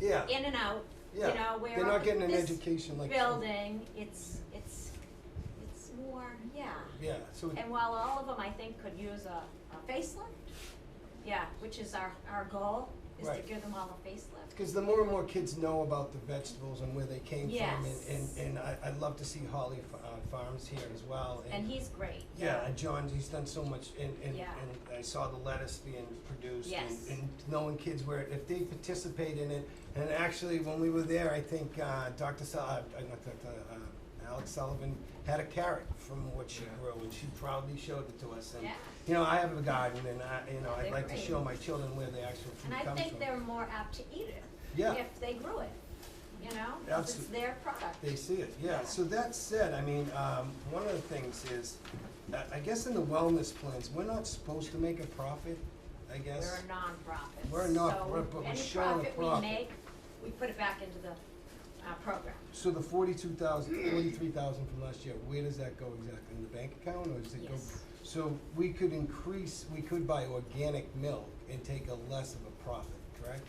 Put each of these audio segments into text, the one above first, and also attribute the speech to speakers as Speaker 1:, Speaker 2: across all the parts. Speaker 1: Yeah,
Speaker 2: in and out, you
Speaker 1: yeah.
Speaker 2: know, where
Speaker 1: They're not
Speaker 2: up
Speaker 1: getting
Speaker 2: in
Speaker 1: an
Speaker 2: this
Speaker 1: education like.
Speaker 2: building, it's, it's, it's more, yeah.
Speaker 1: Yeah, so, it-
Speaker 2: And while all of them, I think, could use a, a facelift, yeah, which is our, our goal, is to
Speaker 1: Right.
Speaker 2: give them all a facelift.
Speaker 1: cause the more and more kids know about the vegetables and where they came from, and,
Speaker 2: Yes.
Speaker 1: and, and I, I love to see Holly Fa- uh, Farms here as well,
Speaker 2: And he's great,
Speaker 1: Yeah, and John, he's done so much, and, and,
Speaker 2: Yeah.
Speaker 1: and I saw the lettuce being produced and,
Speaker 2: Yes.
Speaker 1: and knowing kids where, if they participate in it, and actually, when we were there, I think, uh, Dr. Sul- uh, not Dr., uh, Alex Sullivan had a carrot from what she
Speaker 3: Yeah.
Speaker 1: grew, and she proudly showed it to us, and,
Speaker 2: yeah.
Speaker 1: you know, I have a garden, and I, you know,
Speaker 2: Yeah,
Speaker 1: I'd
Speaker 2: they're
Speaker 1: like to
Speaker 2: great.
Speaker 1: show my children where the actual food
Speaker 2: And
Speaker 1: comes
Speaker 2: I
Speaker 1: from.
Speaker 2: think they're more apt to eat it
Speaker 1: Yeah.
Speaker 2: if they grew it, you know, 'cause it's
Speaker 1: Absolute-
Speaker 2: their product.
Speaker 1: They see it, yeah.
Speaker 2: Yeah.
Speaker 1: So that said, I mean, um, one of the things is, I- I guess in the wellness plans, we're not supposed to make a profit, I
Speaker 2: We're
Speaker 1: guess.
Speaker 2: a nonprofit.
Speaker 1: We're a nonprofit, but we're showing
Speaker 2: So
Speaker 1: a
Speaker 2: any profit
Speaker 1: profit.
Speaker 2: we make, we put it back into the, uh, program.
Speaker 1: So the forty-two thousand, forty-three thousand from last year, where does that go exactly? In the bank account or does it go?
Speaker 2: Yes.
Speaker 1: So we could increase, we could buy organic milk and take a less of a profit, correct?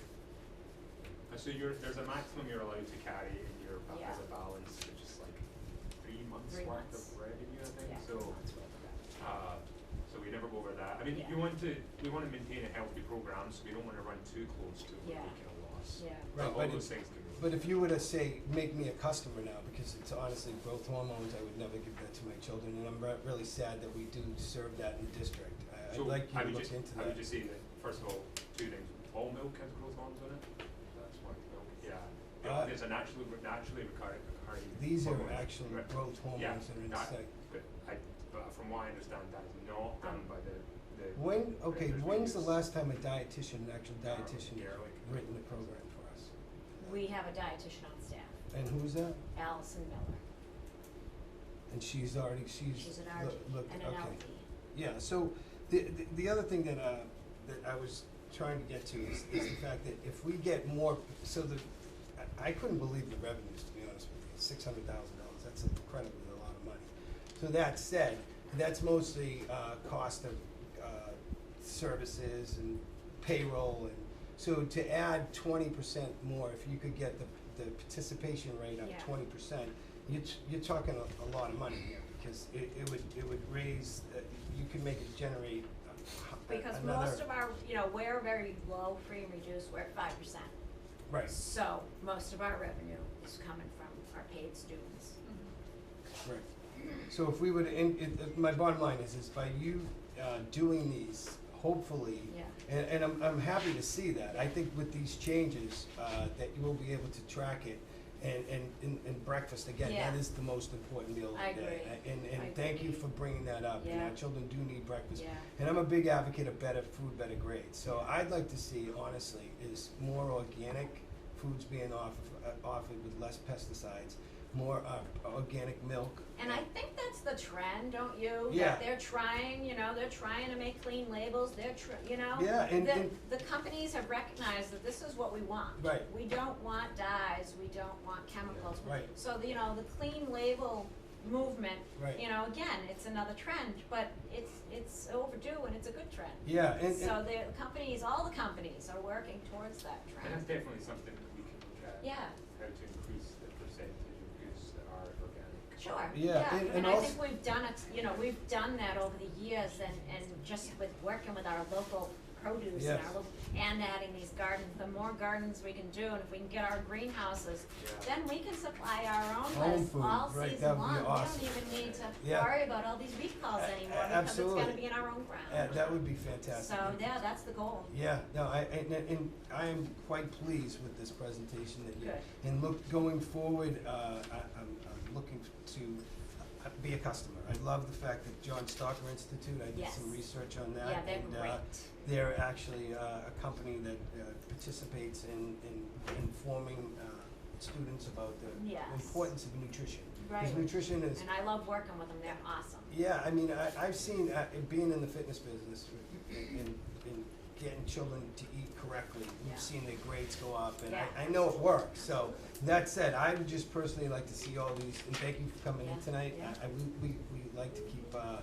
Speaker 3: Uh, So you're, there's a maximum you're allowed to carry in your, ba-
Speaker 2: Yeah.
Speaker 3: as a balance, which is like three months
Speaker 2: Three
Speaker 3: worth
Speaker 2: months.
Speaker 3: of revenue, I think,
Speaker 2: Yeah.
Speaker 3: so. Uh, so we never go over that, I mean,
Speaker 2: Yeah.
Speaker 3: you want to, we wanna maintain a healthy program, so we don't wanna run too close to
Speaker 2: Yeah.
Speaker 3: making a loss.
Speaker 2: Yeah.
Speaker 3: Like,
Speaker 1: Right,
Speaker 3: all
Speaker 1: but
Speaker 3: those
Speaker 1: it-
Speaker 3: things can be.
Speaker 1: But if you were to say, make me a customer now, because it's honestly growth hormones, I would never give that to my children, and I'm re- really sad that we do serve that in the district. I, I'd
Speaker 3: So
Speaker 1: like you
Speaker 3: I
Speaker 1: to
Speaker 3: would
Speaker 1: look
Speaker 3: just-
Speaker 1: into
Speaker 3: I
Speaker 1: that.
Speaker 3: would just say that, first of all, two things, all milk has growth hormones in it, that's why milk, yeah. Yeah,
Speaker 1: Uh,
Speaker 3: There's a naturally, naturally recurring, recurring.
Speaker 1: These are
Speaker 3: hormone.
Speaker 1: actual
Speaker 3: Right.
Speaker 1: growth
Speaker 3: Yeah,
Speaker 1: hormones that are in
Speaker 3: that-
Speaker 1: sight.
Speaker 3: But I, but from what I understand, that is not done by the, the.
Speaker 1: When, okay,
Speaker 3: regulators we
Speaker 1: when's the
Speaker 3: use.
Speaker 1: last time a dietitian, an actual dietitian,
Speaker 3: Yeah, like-
Speaker 1: written a program for us?
Speaker 2: We have a dietitian on staff,
Speaker 1: And who's that?
Speaker 2: Allison Miller.
Speaker 1: And she's already, she's.
Speaker 2: She's an
Speaker 1: look-
Speaker 2: RD
Speaker 1: look,
Speaker 2: and an
Speaker 1: okay.
Speaker 2: LD.
Speaker 1: Yeah, so the, the, the other thing that, uh, that I was trying to get to is, is the fact that if we get more, so the, I, I couldn't believe the revenues, to be honest with you, six hundred thousand dollars, that's incredibly a lot of money. So that said, that's mostly, uh, cost of, uh, services and payroll and, so to add twenty percent more, if you could get the, the participation rate up
Speaker 2: Yeah.
Speaker 1: twenty percent, you're, t- you're talking a, a lot of money here, because it, it would, it would raise, uh, you can make it generate a- a-
Speaker 2: Because
Speaker 1: another-
Speaker 2: most of our, you know, we're very low, free and reduced, we're at five percent.
Speaker 1: Right,
Speaker 2: So most of our revenue is coming from our paid students.
Speaker 1: right. So if we would, in it, uh, my bottom line is, is by you, uh, doing these, hopefully,
Speaker 2: Yeah.
Speaker 1: and, and I'm, I'm happy to see that, I think with these changes, uh, that you will be able to track it, and, and, and, and breakfast, again,
Speaker 2: Yeah.
Speaker 1: that is the most important meal of
Speaker 2: I
Speaker 1: the day.
Speaker 2: agree.
Speaker 1: A- And,
Speaker 2: I
Speaker 1: and thank you
Speaker 2: agree.
Speaker 1: for bringing that up, you know,
Speaker 2: Yeah.
Speaker 1: children do need breakfast,
Speaker 2: Yeah.
Speaker 1: And I'm a big advocate of better food, better grades. So I'd like to see, honestly, is more organic foods being offered, uh, offered with less pesticides, more uh, organic milk.
Speaker 2: And I think that's the trend, don't you?
Speaker 1: Yeah.
Speaker 2: That they're trying, you know, they're trying to make clean labels, they're tr- you know?
Speaker 1: Yeah, and-
Speaker 2: The,
Speaker 1: and-
Speaker 2: the companies have recognized that this is what we want.
Speaker 1: Right.
Speaker 2: We don't want dyes, we don't want chemicals.
Speaker 1: Right.
Speaker 2: So, the- you know, the clean label movement,
Speaker 1: Right.
Speaker 2: you know, again, it's another trend, but it's, it's overdue and it's a good trend.
Speaker 1: Yeah, and, and-
Speaker 2: So the companies, all the companies are working towards that
Speaker 3: And that's
Speaker 2: trend.
Speaker 3: definitely something that we can look at.
Speaker 2: Yeah,
Speaker 3: How to increase the percentage of goods that are organic.
Speaker 2: sure,
Speaker 1: Yeah,
Speaker 2: yeah,
Speaker 1: and- and
Speaker 2: and I think
Speaker 1: also-
Speaker 2: we've done it, you know, we've done that over the years and, and just with working with our local produce and
Speaker 1: Yes.
Speaker 2: our local, and adding these gardens, the more gardens we can do, and if we can get our greenhouses,
Speaker 3: Yeah.
Speaker 2: then we can supply our
Speaker 1: Own
Speaker 2: own list
Speaker 1: food,
Speaker 2: all
Speaker 1: right,
Speaker 2: season
Speaker 1: that would be
Speaker 2: long,
Speaker 1: awesome.
Speaker 2: we don't even need to
Speaker 1: Yeah.
Speaker 2: worry about all these recalls
Speaker 1: A- a-
Speaker 2: anymore, because it's gonna
Speaker 1: absolutely.
Speaker 2: be in our own
Speaker 1: uh,
Speaker 2: ground.
Speaker 1: that would be fantastic.
Speaker 2: So, yeah, that's the goal.
Speaker 1: Yeah, no, I, and, and- and I am quite pleased with this presentation that you,
Speaker 2: Good.
Speaker 1: and look, going forward, uh, I, I'm, I'm looking to uh, be a customer. I love the fact that John Stalker Institute, I did some
Speaker 2: Yes.
Speaker 1: research on that.
Speaker 2: Yeah, they're
Speaker 1: and, uh,
Speaker 2: great.
Speaker 1: They're actually uh, a company that uh, participates in, in informing uh, students about the
Speaker 2: Yes.
Speaker 1: importance of nutrition. 'Cause
Speaker 2: Right.
Speaker 1: nutrition is,
Speaker 2: And I love working with them, they're awesome.
Speaker 1: yeah, I mean, I, I've seen, uh, in being in the fitness business and, and and getting children to eat correctly,
Speaker 2: Yeah.
Speaker 1: we've seen their grades go up, and I,
Speaker 2: Yeah.
Speaker 1: I know it works, so. That said, I would just personally like to see all these, and thank you for coming in
Speaker 2: Yeah,
Speaker 1: tonight.
Speaker 2: yeah.
Speaker 1: I, I, we, we, we like to keep, uh, uh,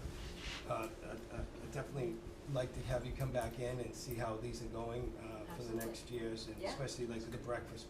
Speaker 1: uh, uh, definitely like to have you come back in and see how these are going, uh, for the
Speaker 2: Absolutely.
Speaker 1: next years, and
Speaker 2: Yeah.
Speaker 1: especially like with the breakfast